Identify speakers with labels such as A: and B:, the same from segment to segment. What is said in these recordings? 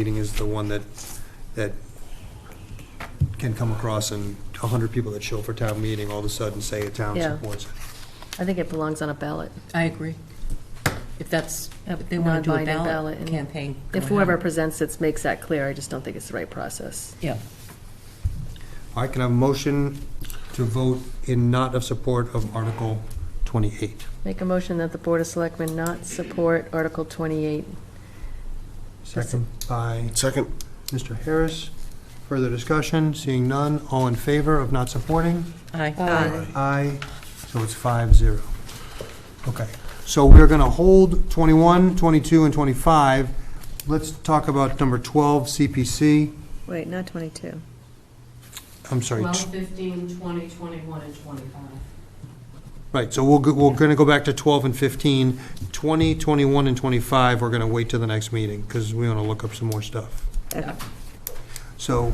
A: meeting is the one that, that can come across and a hundred people that show for town meeting all of a sudden say a town
B: Yeah.
A: supports it.
B: I think it belongs on a ballot.
C: I agree. If that's,
B: A
C: if they want to do a
B: non-binding ballot
C: ballot
B: and-
C: campaign. go
B: If whoever
C: ahead.
B: presents it makes that clear, I just don't think it's the right process.
C: Yeah,
A: All right, can I have a motion to vote in not of support of Article twenty-eight?
B: Make a motion that the Board of Selectmen not support Article 28.
A: Second by
D: Second?
A: Mr. Harris. Further discussion? Seeing none, all in favor of not supporting?
C: aye.
A: Aye, so it's five zero. Okay, so we're gonna hold 21, 22, and 25. Let's talk about number 12, CPC.
E: Wait, not 22.
A: I'm sorry,
F: 12,
A: t-
F: 15, 20, 21, and 25.
A: right, so we'll, go- we're gonna go back to 12 and 15. 20, 21, and 25, we're gonna wait till the next meeting, because we wanna look up some more stuff.
E: Okay.
A: So,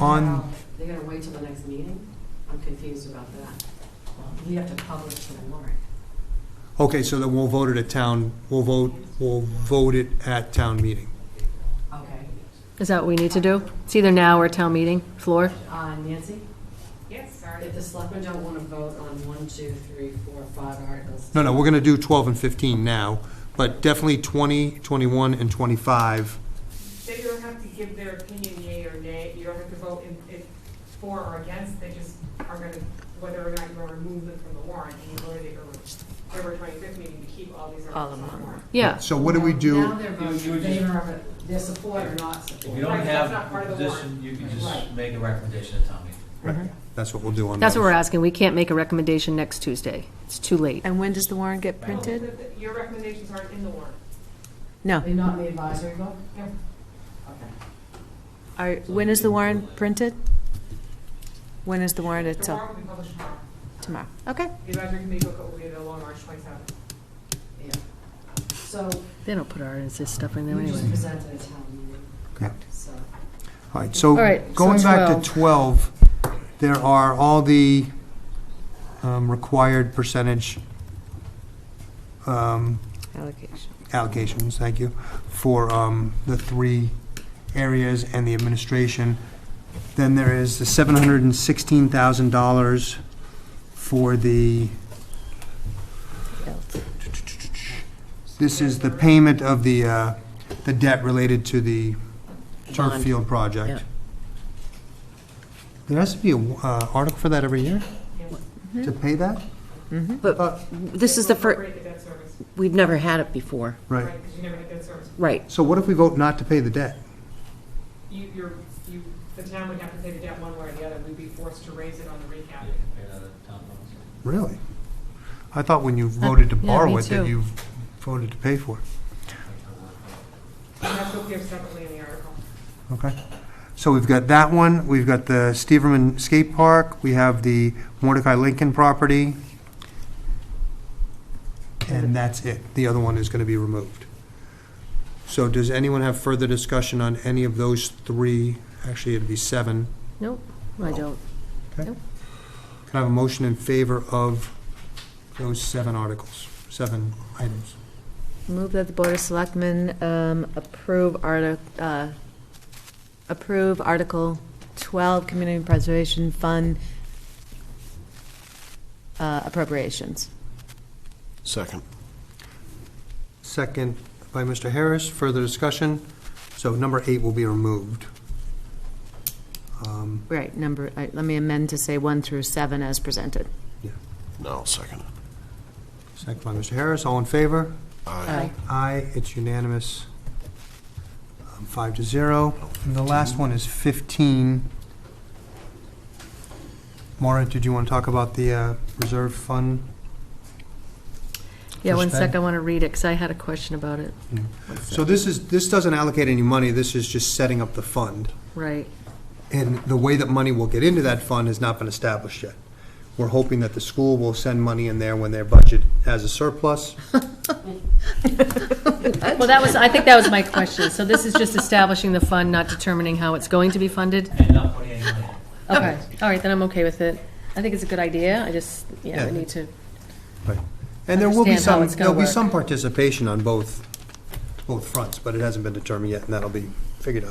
A: on,
F: Wow, They gotta wait till the next meeting? I'm confused about that. We have to publish the warrant.
A: okay, so then we'll vote it at town, we'll vote, we'll vote it at town meeting.
F: Okay.
B: Is that what we need to do? It's either now or town meeting floor?
F: Uh, Nancy? Yes, sorry. If the selectmen don't want to vote on one, two, three, four, five articles.
A: No, no, we're gonna do 12 and 15 now, but definitely 20, 21, and 25
G: They don't have to give their opinion yea or nay, you don't have to vote in, in for or against, they just are gonna, whether or not you're gonna remove them from the warrant, and you voted at your November twenty-fifth meeting to keep all these
C: All of
G: articles on the
C: them.
G: warrant.
B: Yeah.
A: So what do we
F: Now
A: do?
F: they're voting in favor of it, their support or not
H: If
F: support.
H: you don't
G: Right, that's not
H: have
G: part
H: a
G: of the warrant.
H: position, you can just
F: Right.
H: make a recommendation at town meeting.
A: That's what we'll do on.
B: That's what
A: those.
B: we're asking. We can't make a recommendation next Tuesday. It's too late.
E: And when does the warrant get printed?
G: Oh, The- the- Your recommendations aren't in the warrant.
E: No.
F: They're not in the advisory vote?
G: No.
F: Okay.
E: Are, when is the warrant printed? When is the warrant
G: The
E: itself?
G: warrant will be published tomorrow,
E: Tomorrow. Okay.
G: the advisory committee will go, we along March twenty-seventh.
F: Yeah. So
B: They don't put our, it's this stuff in there
F: you
B: anyway.
F: just presented a town meeting.
A: Correct.
F: So,
A: All right,
B: All
A: so
B: right, so
A: going back to 12, there are all the um, required percentage um,
E: Allocation.
A: allocations, thank you, for um, the three areas and the administration. Then there is the $716,000 for the, this is the payment of the, uh, the debt related to the turf
C: Bond.
A: field project. There has to be an article for that every year? To pay that? Uh,
C: But this is the first,
G: Break the debt service,
C: we've never had it before.
A: Right.
G: right, because you never had debt service.
C: Right,
A: So what if we vote not to pay the debt?
G: You, you're, you, the town would have to pay the debt one way or the other, we'd be forced to raise it on the recap.
H: Pay that at town meeting.
A: Really? I thought when you voted to
B: yeah,
A: borrow
B: me
A: it, that
B: too.
A: you voted to pay for it.
G: And that's what we have separately in the article.
A: Okay. So we've got that one, we've got the Steverman Skate Park, we have the Mordecai Lincoln property, and that's it. The other one is going to be removed. So does anyone have further discussion on any of those three? Actually, it'd be seven.
B: Nope, I don't.
A: Can I have a motion in favor of those seven articles, seven items?
E: Move that the Board of Selectmen um, approve arti- uh, approve Article 12, Community Preservation Fund uh, appropriations.
D: Second.
A: Second by Mr. Harris. Further discussion? So number eight will be removed. Um,
E: Right, number, I- let me amend to say 1 through 7 as presented.
D: No, second.
A: Second by Mr. Harris. All in favor?
D: Aye.
A: Aye, it's unanimous. Um, Five to zero. And the last one is 15. Maura, did you want to talk about the uh, reserve fund?
B: Yeah, one
A: First
B: sec,
A: Ben.
B: I want to read it because I had a question about it.
A: So this is, this doesn't allocate any money. This is just setting up the fund.
B: Right.
A: And the way that money will get into that fund has not been established yet. We're hoping that the school will send money in there when their budget has a surplus.
B: Well, that was, I think that was my question. So this is just establishing the fund, not determining how it's going to be funded?
H: And not putting any money in.
B: Okay, all right, then I'm okay with it. I think it's a good idea, I just, yeah,
A: Yeah.
B: we need to,
A: And there will be
B: Understand how
A: some,
B: it's gonna
A: there'll be
B: work.
A: some participation on both, both fronts, but it hasn't been determined yet, and that'll be figured out.